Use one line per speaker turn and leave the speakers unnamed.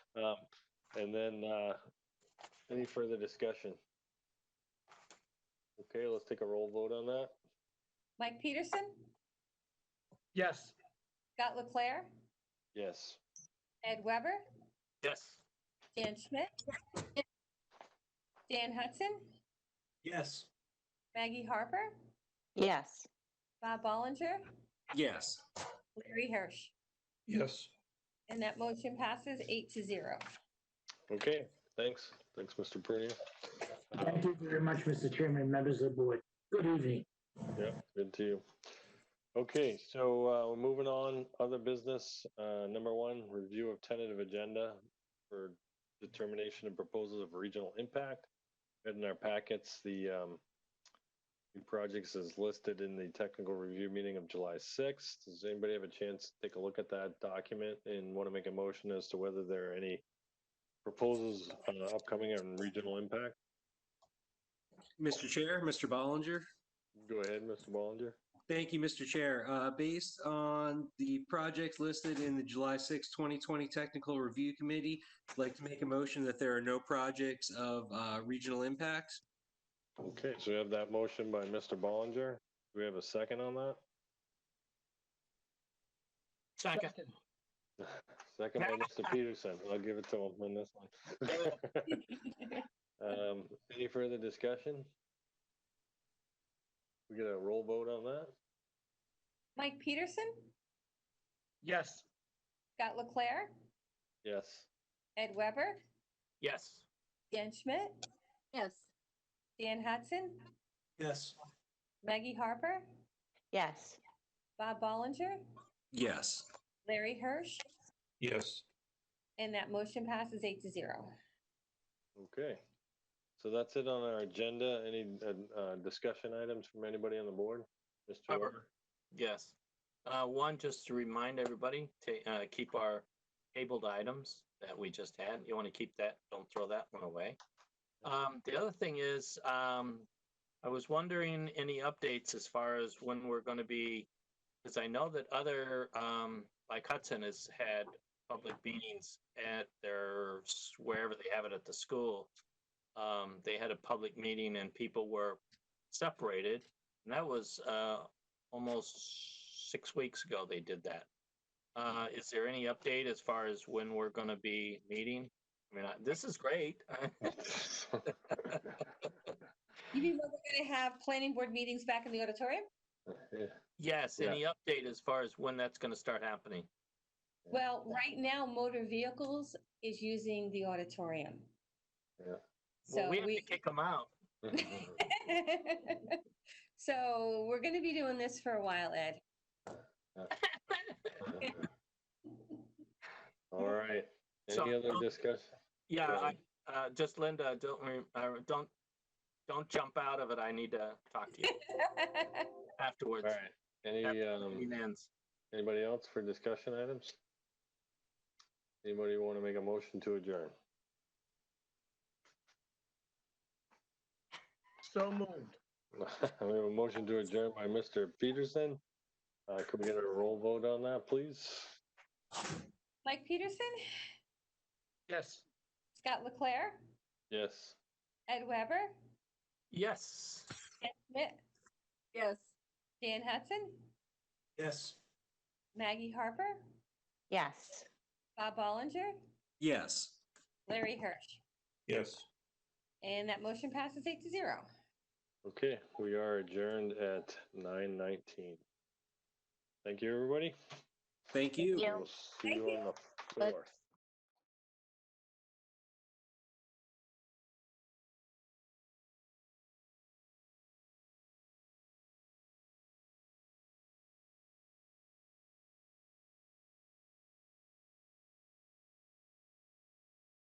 Um, And then, uh, any further discussion? Okay, let's take a roll vote on that.
Mike Peterson,
Yes.
Scott Leclair,
Yes.
Ed Weber,
Yes.
Dan Schmidt, Dan Hudson,
Yes.
Maggie Harper,
Yes.
Bob Ballinger,
Yes.
Larry Hirsch.
Yes.
And that motion passes eight to zero.
Okay, thanks. Thanks, Mr. Prunia.
Thank you very much, Mr. Chairman, members of the board. Good evening.
Yeah, good to you. Okay, so uh, we're moving on, other business. Uh, Number one, review of tentative agenda for determination of proposals of regional impact. And In our packets, the um, new projects is listed in the technical review meeting of July 6th. Does anybody have a chance to take a look at that document and want to make a motion as to whether there are any proposals uh, upcoming on regional impact?
Mr. Chair, Mr. Ballinger.
Go ahead, Mr. Ballinger.
Thank you, Mr. Chair. Uh, Based on the projects listed in the July 6, 2020 Technical Review Committee, I'd like to make a motion that there are no projects of uh, regional impact.
Okay, so we have that motion by Mr. Ballinger. Do we have a second on that?
Second.
Second by Mr. Peterson. I'll give it to him on this one. Um, Any further discussion? We get a roll vote on that?
Mike Peterson,
Yes.
Scott Leclair,
Yes.
Ed Weber,
Yes.
Dan Schmidt,
Yes.
Dan Hudson,
Yes.
Maggie Harper,
Yes.
Bob Ballinger,
Yes.
Larry Hirsch,
Yes.
and that motion passes eight to zero.
Okay. So that's it on our agenda. Any uh, uh, discussion items from anybody on the board? Mr. Weber?
Yes. Uh, One, just to remind everybody to uh, keep our tabled items that we just had. You want to keep that, don't throw that one away. Um, The other thing is, um, I was wondering any updates as far as when we're going to be, because I know that other, um, like Hudson has had public meetings at their, wherever they have it at the school. Um, They had a public meeting and people were separated. And that was uh, almost six weeks ago they did that. Uh, is there any update as far as when we're going to be meeting? I mean, I, this is great.
You mean we're going to have planning board meetings back in the auditorium?
yes,
Yeah.
any update as far as when that's going to start happening?
Yeah.
Well, right now, motor vehicles is using the auditorium.
Yeah.
So
well, we have
we,
to kick them out.
so we're going to be doing this for a while, Ed.
All right.
So- um,
Any other discussion?
Yeah,
Go
I,
ahead.
uh, just Linda, don't re- uh, don't don't jump out of it. I need to talk to you
All
afterwards.
right. Any, um,
Meeting ends.
Anybody else for discussion items? Anybody want to make a motion to adjourn?
So moved.
We have a motion to adjourn by Mr. Peterson. Uh, could we get a roll vote on that, please?
Mike Peterson,
Yes.
Scott Leclair,
Yes.
Ed Weber,
Yes.
Dan Schmidt,
Yes.
Dan Hudson,
Yes.
Maggie Harper,
Yes.
Bob Ballinger,
Yes.
Larry Hirsch.
Yes.
And that motion passes eight to zero.
Okay, we are adjourned at nine nineteen. Thank you, everybody.
Thank you.
Yeah.
We'll See you on the
But-
fourth.